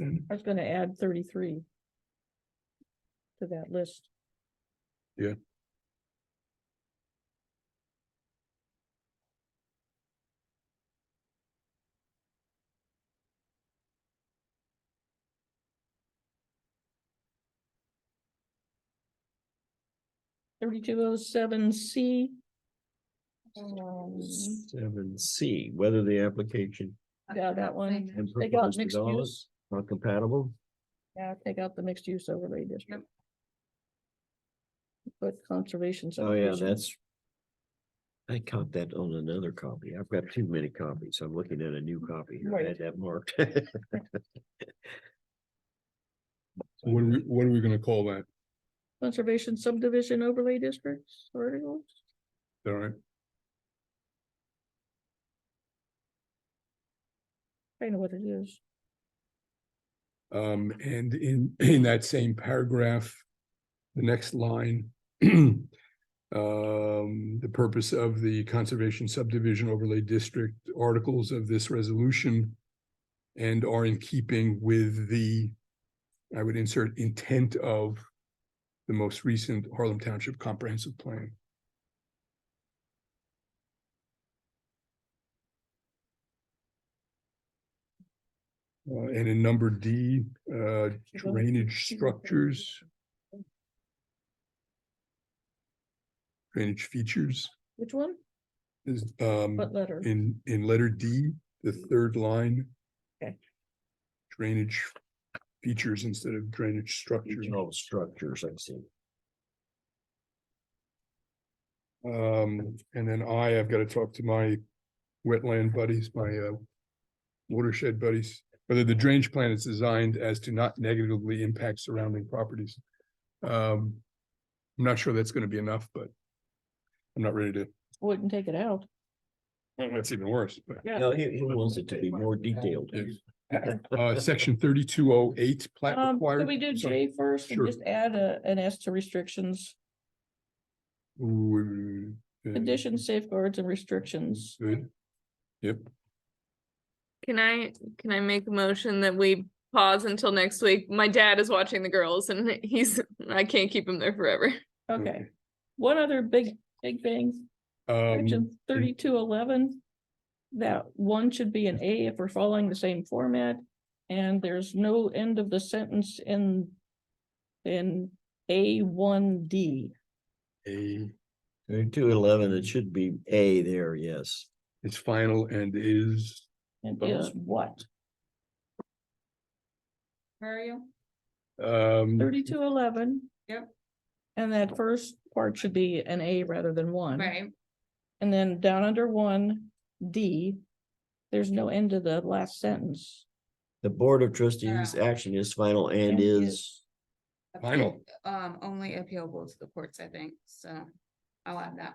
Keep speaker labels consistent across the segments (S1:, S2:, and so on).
S1: I was gonna add thirty-three. To that list.
S2: Yeah.
S1: Thirty-two oh seven C. Um,
S2: Seven C, whether the application
S1: Yeah, that one.
S2: and
S1: They got
S2: proposed
S1: mixed
S2: developments are compatible.
S1: Yeah, take out the mixed use overlay district. Put conservation.
S2: Oh, yeah,
S1: subdivision.
S2: that's. I caught that on another copy. I've got too many copies. I'm looking at a new copy. here. I
S1: Right.
S2: had that marked.
S3: What are we, what are we gonna call that? Is
S1: Conservation subdivision overlay districts, articles.
S3: that All right,
S1: I know what it is.
S3: um, and in, in that same paragraph, the next line. Um, the purpose of the Conservation Subdivision Overlay District articles of this resolution. And are in keeping with the, I would insert intent of. The most recent Harlem Township Comprehensive Plan. Uh, and in number D, uh, drainage structures. Drainage features
S1: Which one?
S3: is, um,
S1: What letter?
S3: in, in letter D, the third line.
S1: Okay.
S3: Drainage features instead of drainage structures.
S2: All structures, I see.
S3: Um, and then I, I've got to talk to my wetland buddies, my uh. Watershed buddies, whether the drainage plan is designed as to not negatively impact surrounding properties. Um, I'm not sure that's gonna be enough, but. I'm not ready to,
S1: Wouldn't Oh, take it out.
S3: that's even worse, but.
S2: No, he, he wants it to be more detailed.
S3: Yes. Uh, section thirty-two oh eight plat
S1: Um,
S3: required.
S1: can we do
S3: Sorry.
S1: J first and
S3: Sure.
S1: just add a, an S to restrictions,
S3: Ooh, uh,
S1: conditions, safeguards and restrictions?
S3: Good. Yep,
S4: Can I, can I make a motion that we pause until next week? My dad is watching the girls and he's, I can't keep him there forever.
S1: Okay.
S3: mm, Okay.
S1: One other big, big thing,
S3: um,
S1: section thirty-two eleven. That one should be an A if we're following the same format, and there's no end of the sentence in. In A one D.
S3: a,
S2: Two eleven, it should be A there, yes.
S3: it's final and is.
S1: It
S3: Oh.
S1: is what?
S2: Mm-hmm.
S5: Where are you?
S3: Um,
S1: Thirty-two oh eleven.
S5: Yep.
S1: And that first part should be an A rather than one.
S5: Right,
S1: And then down under one, D, there's no end to the last sentence.
S2: The Board of Trustees action is final and
S1: And is.
S2: is,
S3: Final.
S5: um, only appealable to the courts, I think, so I'll add that.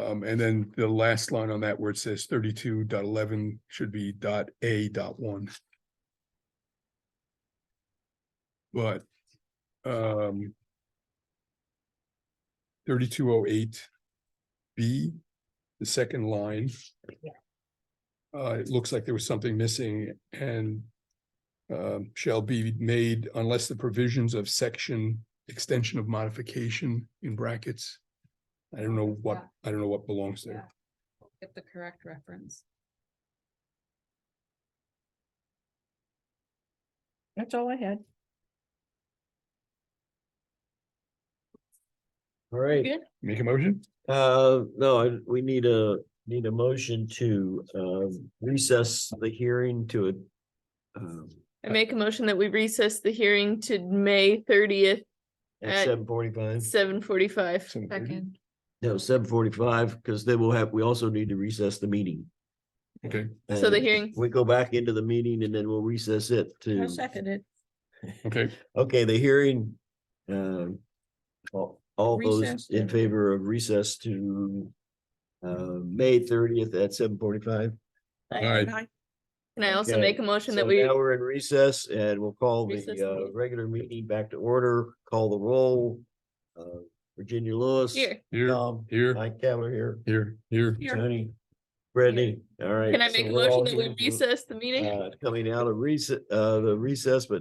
S3: um, and then the last line on that where it says thirty-two dot eleven should be dot A dot one. But, um. Thirty-two oh eight B, the second line. Uh, it looks like there was something missing and. Um, shall be made unless the provisions of section extension of modification in brackets. I don't know what, I don't know what belongs there.
S5: Get the correct reference.
S1: That's all I had.
S2: all right.
S1: Good.
S3: Make a motion?
S2: Uh, no, I- we need a, need a motion to, um, recess the hearing to a. Um,
S4: I make a motion that we recess the hearing to May thirtieth,
S2: at
S4: At-
S2: seven forty-five,
S4: seven forty-five.
S3: Seven thirty?
S2: no, seven forty-five, because then we'll have, we also need to recess the meeting.
S3: Okay,
S4: So the
S2: And
S4: hearing-
S2: We go back into the meeting and then we'll recess it
S1: I
S2: to,
S1: second it.
S3: okay,
S2: okay, the hearing, um. All, all those
S1: Recess.
S2: in favor of recess to, uh, May thirtieth at seven forty-five?
S3: Aye.
S4: Can I also
S2: Okay,
S4: make a motion
S2: So
S4: that we,
S2: now we're in recess and we'll call
S4: Recess
S2: the
S4: the
S2: uh
S4: meeting.
S2: regular meeting back to order, call the roll. Uh, Virginia Lewis.
S4: here,
S3: here,
S2: Tom,
S3: here,
S2: Mike Cavler here,
S3: here, here.
S2: Tony, Brittany, all right.
S4: Can I make a
S2: so we're all
S4: motion that
S2: here,
S4: we recess the meeting?
S2: uh, Coming out of recess, uh, the recess, but